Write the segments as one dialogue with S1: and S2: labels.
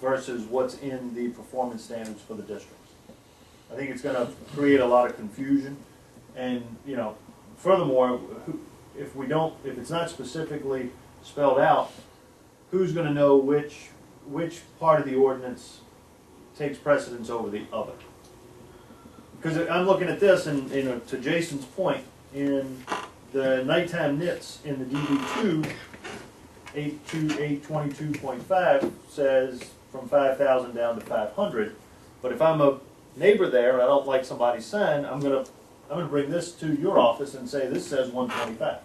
S1: versus what's in the performance standards for the districts. I think it's gonna create a lot of confusion, and, you know, furthermore, who- if we don't, if it's not specifically spelled out, who's gonna know which, which part of the ordinance takes precedence over the other? Because I'm looking at this, and, you know, to Jason's point, in the nighttime nits in the DB two, eight two eight twenty-two point five says from five thousand down to five hundred. But if I'm a neighbor there and I don't like somebody's sign, I'm gonna, I'm gonna bring this to your office and say, this says one twenty-five.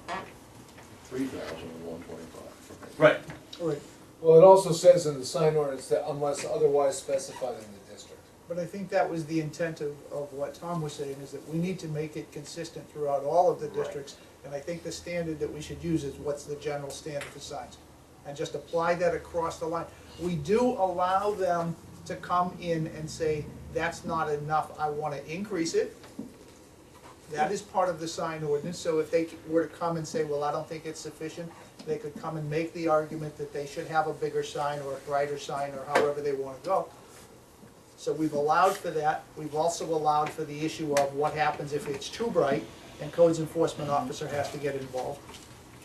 S2: Three thousand and one twenty-five.
S1: Right.
S3: Right,
S4: Well, it also says in the sign ordinance that unless otherwise specified in the district.
S3: but I think that was the intent of, of what Tom was saying, is that we need to make it consistent throughout all of the
S2: Right.
S3: districts. And I think the standard that we should use is what's the general standard for signs? And just apply that across the line. We do allow them to come in and say, that's not enough, I wanna increase it. That is part of the sign ordinance, so if they were to come and say, well, I don't think it's sufficient, they could come and make the argument that they should have a bigger sign or a brighter sign or however they wanna go. So we've allowed for that, we've also allowed for the issue of what happens if it's too bright and codes enforcement officer has to get involved.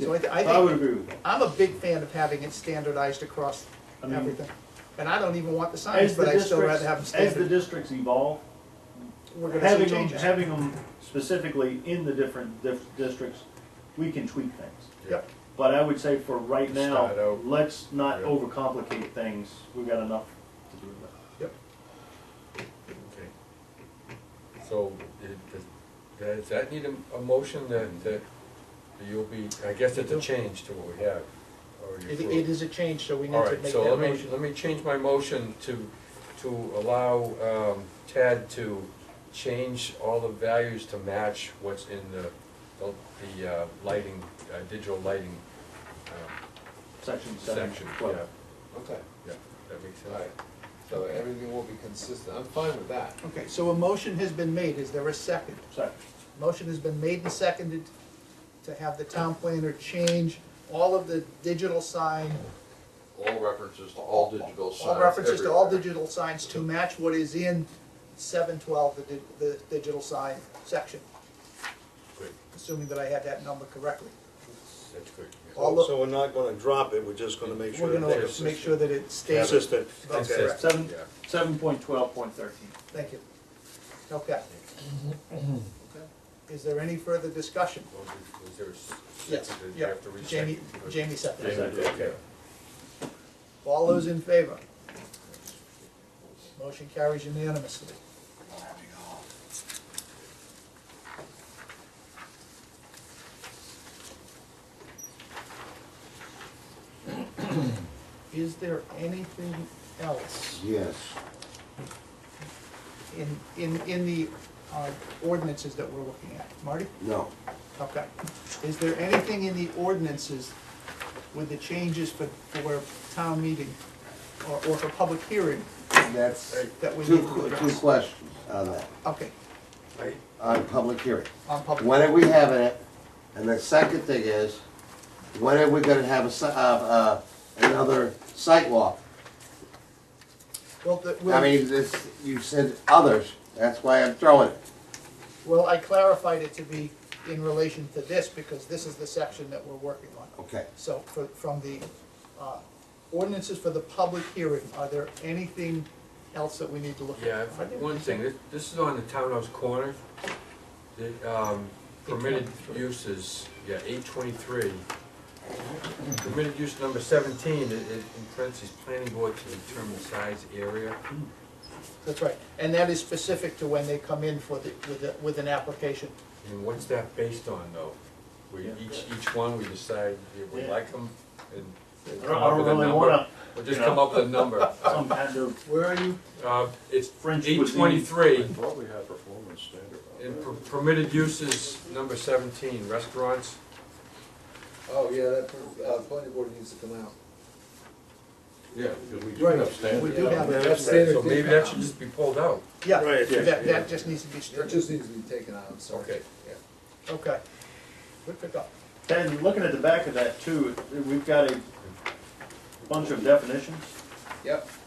S3: So I, th- I
S1: Mm-hmm. I would
S3: think,
S1: agree with that.
S3: I'm a big fan of having it standardized across
S1: I mean-
S3: everything. And I don't even want the signs,
S1: As the
S3: but I'd still rather have them
S1: districts, as the
S3: standard.
S1: districts evolve,
S3: We're gonna see
S1: having them,
S3: changes.
S1: having them specifically in the different dif- districts, we can tweak things.
S3: Yep.
S1: But I would say for right
S2: Just start
S1: now,
S2: out.
S1: let's not
S2: Yeah.
S1: overcomplicate things, we've got enough to do with
S5: Okay. So, it- does, does that need a, a motion that, that you'll be, I guess it's a change to what we have? already
S3: It,
S5: approved.
S3: it is a change, so we need
S5: All
S3: to
S5: right,
S3: make
S5: so let
S3: that
S5: me,
S3: motion.
S5: let me change my motion to, to allow um, Tad to change all the values to match what's in the, the- the uh, lighting, uh, digital lighting um,
S1: section seven.
S5: section, yeah,
S1: twelve.
S4: Okay.
S5: yeah, that makes sense.
S4: Alright, so everything will be consistent, I'm fine with that.
S3: Okay, so a motion has been made, is there a second?
S1: Section.
S3: Motion has been made and seconded to have the town planner change all of the digital sign,
S6: All references to all digital signs.
S3: all references to all
S6: everywhere.
S3: digital signs to match what is in seven twelve, the, di- the digital sign section,
S5: Good,
S3: assuming that I had that number correctly.
S5: that's good. yeah.
S3: All the-
S7: So we're not gonna drop it, we're just gonna make sure
S3: We're
S7: that
S3: gonna
S7: it's
S3: make sure that it stays.
S7: consistent.
S3: That's
S7: Okay.
S3: correct.
S1: Seven,
S5: Yeah.
S1: seven point twelve point thirteen.
S3: Thank you. Okay. Mm-hmm. Is there any further discussion?
S5: Well, was- was there a s-
S3: Yes,
S5: did you
S3: yeah,
S5: have to recheck?
S3: Jamie, Jamie said that.
S1: Jamie.
S5: Okay.
S3: All those in favor? Motion carries unanimously. Is there anything else
S2: Yes.
S3: in, in, in the uh, ordinances that we're looking at? Marty?
S2: No.
S3: Okay. Is there anything in the ordinances with the changes for, for town meeting or, or for public hearing
S8: That's
S3: that we need
S8: two,
S3: to
S8: two
S3: address?
S8: questions on that,
S3: Okay,
S8: on public hearing.
S3: on public,
S8: When are we having it? And the second thing is, when are we gonna have a, si- uh, uh, another sidewalk?
S3: well, the-
S8: I
S3: well,
S8: mean, this, you said others, that's why I'm throwing it.
S3: well, I clarified it to be in relation to this because this is the section that we're working on.
S8: Okay,
S3: So for, from the, uh, ordinances for the public hearing, are there anything else that we need to look at?
S5: Yeah, if- one thing, this, this is on the townhouse corner, the, um, permitted
S3: 823.
S5: uses, yeah, eight twenty-three. Permitted use number seventeen, it, it, in parentheses, planning board to determine size, area.
S3: That's right, and that is specific to when they come in for the, with, the- with an application.
S5: And what's that based on though? We,
S1: Yeah.
S5: each, each one, we decide if we
S1: Yeah.
S5: like them and. and
S1: I
S5: come
S1: don't,
S5: up
S1: I don't
S5: with a
S1: really
S5: number.
S1: wanna,
S5: We'll just
S1: you know.
S5: come up with a number.
S1: some kind of
S3: Where are you?
S5: Uh, it's
S1: French
S5: eight
S1: cuisine.
S5: twenty-three.
S2: I thought we had performance standard
S5: In
S2: on
S5: per- permitted uses, number seventeen, restaurants,
S4: Oh, yeah, that, uh, planning board needs to come out.
S2: that. Yeah, because we do
S3: Right.
S2: have standards.
S3: We do have it.
S4: That's
S5: so maybe that should just be pulled out.
S3: Yeah,
S7: Right, yeah,
S3: that,
S2: yeah.
S3: that just needs to be
S4: It
S3: stricken,
S4: just needs to be taken out, I'm sorry.
S5: Okay.
S4: Yeah.
S3: okay. Good pickup.
S1: And looking at the back of that too, we've got a bunch of definitions.
S4: Yep.